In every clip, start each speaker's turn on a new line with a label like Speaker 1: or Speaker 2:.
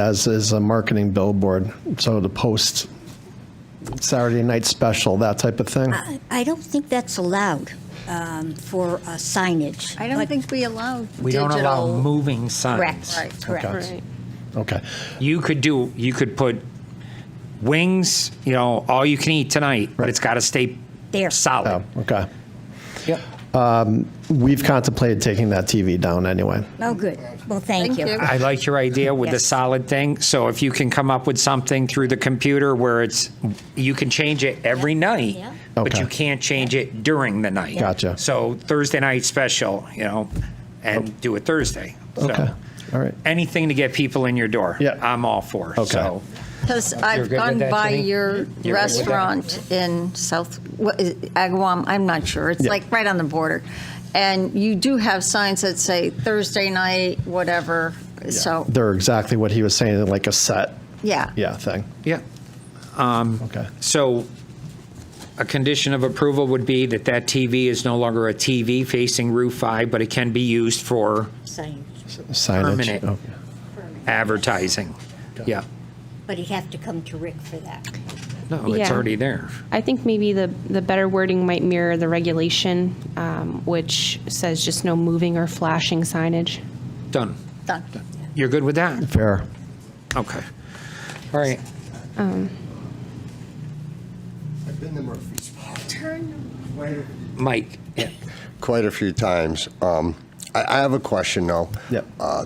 Speaker 1: as is a marketing billboard. So to post Saturday night special, that type of thing.
Speaker 2: I don't think that's allowed um, for uh, signage.
Speaker 3: I don't
Speaker 2: But-
Speaker 3: think we allow
Speaker 4: We don't allow
Speaker 3: digital-
Speaker 4: moving signs.
Speaker 3: Correct, correct.
Speaker 1: Okay. Okay.
Speaker 4: You could do, you could put wings, you know, all you can eat tonight, but
Speaker 1: Right.
Speaker 4: it's got to stay
Speaker 2: There.
Speaker 4: solid.
Speaker 1: Oh, okay. Um,
Speaker 4: Yep.
Speaker 1: We've contemplated taking that TV down anyway.
Speaker 2: Oh, good. Well, thank
Speaker 3: Thank you.
Speaker 2: you.
Speaker 4: I like your idea with the
Speaker 2: Yes.
Speaker 4: solid thing. So if you can come up with something through the computer where it's, you can change it every night,
Speaker 2: Yeah.
Speaker 4: but
Speaker 1: Okay.
Speaker 4: you can't change it during the night.
Speaker 1: Gotcha.
Speaker 4: So Thursday night special, you know, and do it Thursday. So
Speaker 1: Okay. All right.
Speaker 4: Anything to get people in your door.
Speaker 1: Yeah.
Speaker 4: I'm all for.
Speaker 1: Okay.
Speaker 4: So
Speaker 3: Because
Speaker 4: You're
Speaker 3: I've
Speaker 4: good with
Speaker 3: gone
Speaker 4: that,
Speaker 3: by
Speaker 4: Jenny?
Speaker 3: your
Speaker 4: that?
Speaker 3: restaurant in South, what is it, Agawam, I'm not sure. It's
Speaker 1: Yeah.
Speaker 3: like right on the border. And you do have signs that say Thursday night, whatever. So,
Speaker 1: They're exactly what he was saying, like a set,
Speaker 3: yeah.
Speaker 1: yeah, thing.
Speaker 4: yeah.
Speaker 1: Okay.
Speaker 4: So a condition of approval would be that that TV is no longer a TV facing Route 5, but it can be used for
Speaker 2: Signage.
Speaker 1: Signage.
Speaker 4: Permanent.
Speaker 1: Okay.
Speaker 4: advertising. Yeah.
Speaker 2: But you'd have to come to Rick for that.
Speaker 4: No, it's
Speaker 5: Yeah.
Speaker 4: already there.
Speaker 5: I think maybe the, the better wording might mirror the regulation, um, which says just no moving or flashing signage.
Speaker 4: Done.
Speaker 3: Done.
Speaker 4: You're good with that?
Speaker 1: Fair.
Speaker 4: Okay. All right. Mike, yeah.
Speaker 6: quite a few times. Um, I, I have a question though.
Speaker 1: Yep.
Speaker 6: Uh,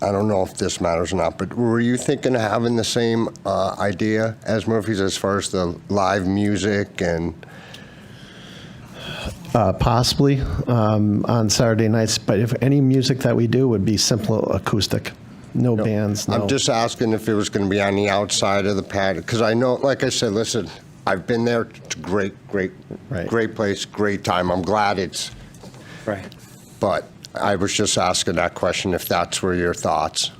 Speaker 6: I don't know if this matters or not, but were you thinking of having the same uh, idea as Murphy's as far as the live music and?
Speaker 1: Uh, possibly um, on Saturday nights, but if any music that we do would be simple acoustic, no bands, no.
Speaker 6: I'm just asking if it was going to be on the outside of the patio because I know, like I said, listen, I've been there. It's a great, great,
Speaker 1: Right.
Speaker 6: great place, great time. I'm glad it's,
Speaker 4: Right.
Speaker 6: but I was just asking that question if that's were your thoughts.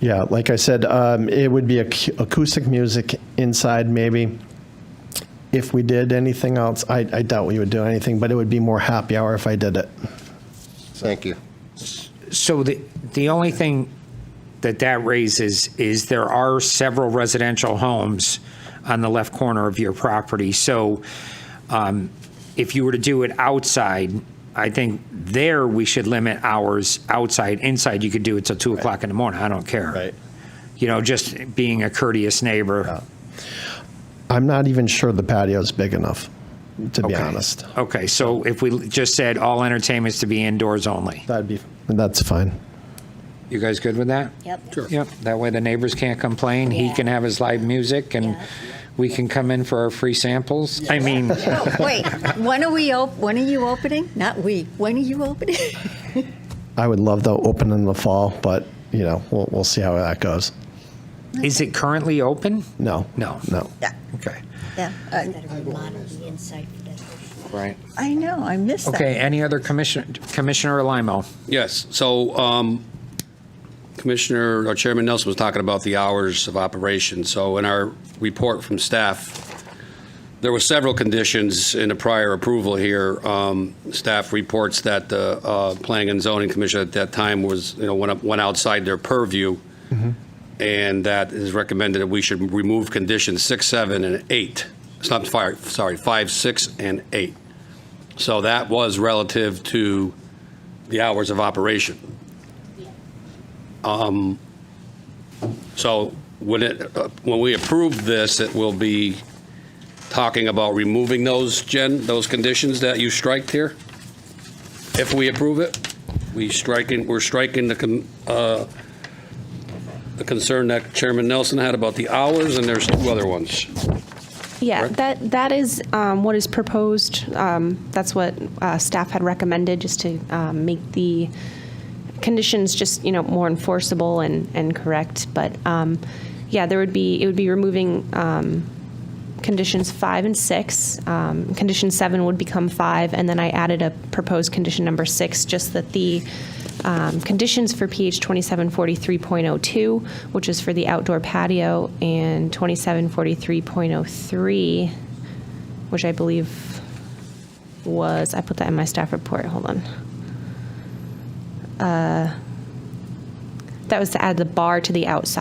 Speaker 1: Yeah, like I said, um, it would be ac- acoustic music inside, maybe. If we did anything else, I, I doubt we would do anything, but it would be more happy hour if I did it.
Speaker 6: Thank you.
Speaker 4: So the, the only thing that that raises is there are several residential homes on the left corner of your property. So um, if you were to do it outside, I think there we should limit hours outside. Inside, you could do it till two o'clock in the morning. I don't care. You know, just being a courteous neighbor.
Speaker 1: I'm not even sure the patio's big enough, to be
Speaker 4: Okay.
Speaker 1: honest.
Speaker 4: Okay, so if we just said all entertainments to be indoors only,
Speaker 1: That'd be, that's fine.
Speaker 4: you guys good with that?
Speaker 2: Yep.
Speaker 4: Yep, that way the neighbors can't complain, he
Speaker 2: Yeah.
Speaker 4: can have his live music, and
Speaker 2: Yeah.
Speaker 4: we can come in for our free samples. I mean,
Speaker 3: Oh, Wait, when are we, op- when are you opening? Not we, when are you opening?
Speaker 1: I would love to open in the fall, but, you know, we'll, we'll see how that goes.
Speaker 4: is it currently open?
Speaker 1: No.
Speaker 4: No.
Speaker 1: No.
Speaker 4: Okay,
Speaker 2: Yeah. You've got to remodel the inside for that.
Speaker 4: right.
Speaker 3: I know, I missed that.
Speaker 4: Okay, any other commissioner, Commissioner Limo?
Speaker 7: Yes, so um, Commissioner, or Chairman Nelson was talking about the hours of operation. So in our report from staff, there were several conditions in the prior approval here. Um, Staff reports that the uh, Planning and Zoning Commission at that time was, you know, went up- went outside their purview, and that is recommended that we should remove conditions six, seven, and eight. It's not, fi- sorry, five, six, and eight. So that was relative to the hours of operation. Um, So when it, uh, when we approve this, it will be talking about removing those, Jen, those conditions that you striked here? If we approve it, we striking, we're striking the, con- uh, the concern that Chairman Nelson had about the hours, and there's two other ones.
Speaker 5: Yeah,
Speaker 7: Correct.
Speaker 5: that, that is um, what is proposed. Um, That's what uh, staff had recommended, just to um, make the conditions just, you know, more enforceable and, and correct. But um, yeah, there would be, it would be removing um, conditions five and six. Um, Condition seven would become five, and then I added a proposed condition number six, just that the um, conditions for PH 2743.02, which is for the outdoor patio, and 2743.03, which I believe was, I put that in my staff report, hold on. Uh, That was to add the bar to the outside.